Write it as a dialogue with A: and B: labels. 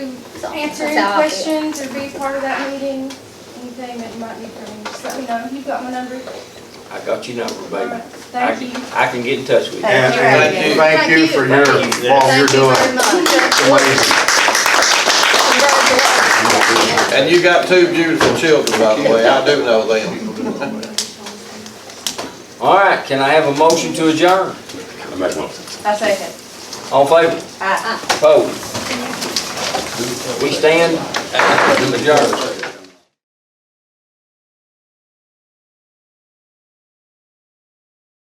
A: answer any questions or be part of that meeting, anything that you might need from me, just let me know. You've got my number.
B: I got your number,
A: All
B: baby.
A: right.
B: I
A: Thank you.
B: can- I can get in touch with you.
C: And,
D: Thank
C: and
D: you.
C: thank you for your,
B: Thank you.
C: all you're
D: Thank you
C: doing.
D: very much.
C: Amazing.
D: Congratulations.
E: And you got two beautiful children, by the way, I do know them.
B: All right, can I have a motion to adjourn?
F: I make one.
D: I second.
B: All in favor?
D: Aye.
B: Opposed? We stand adjourned.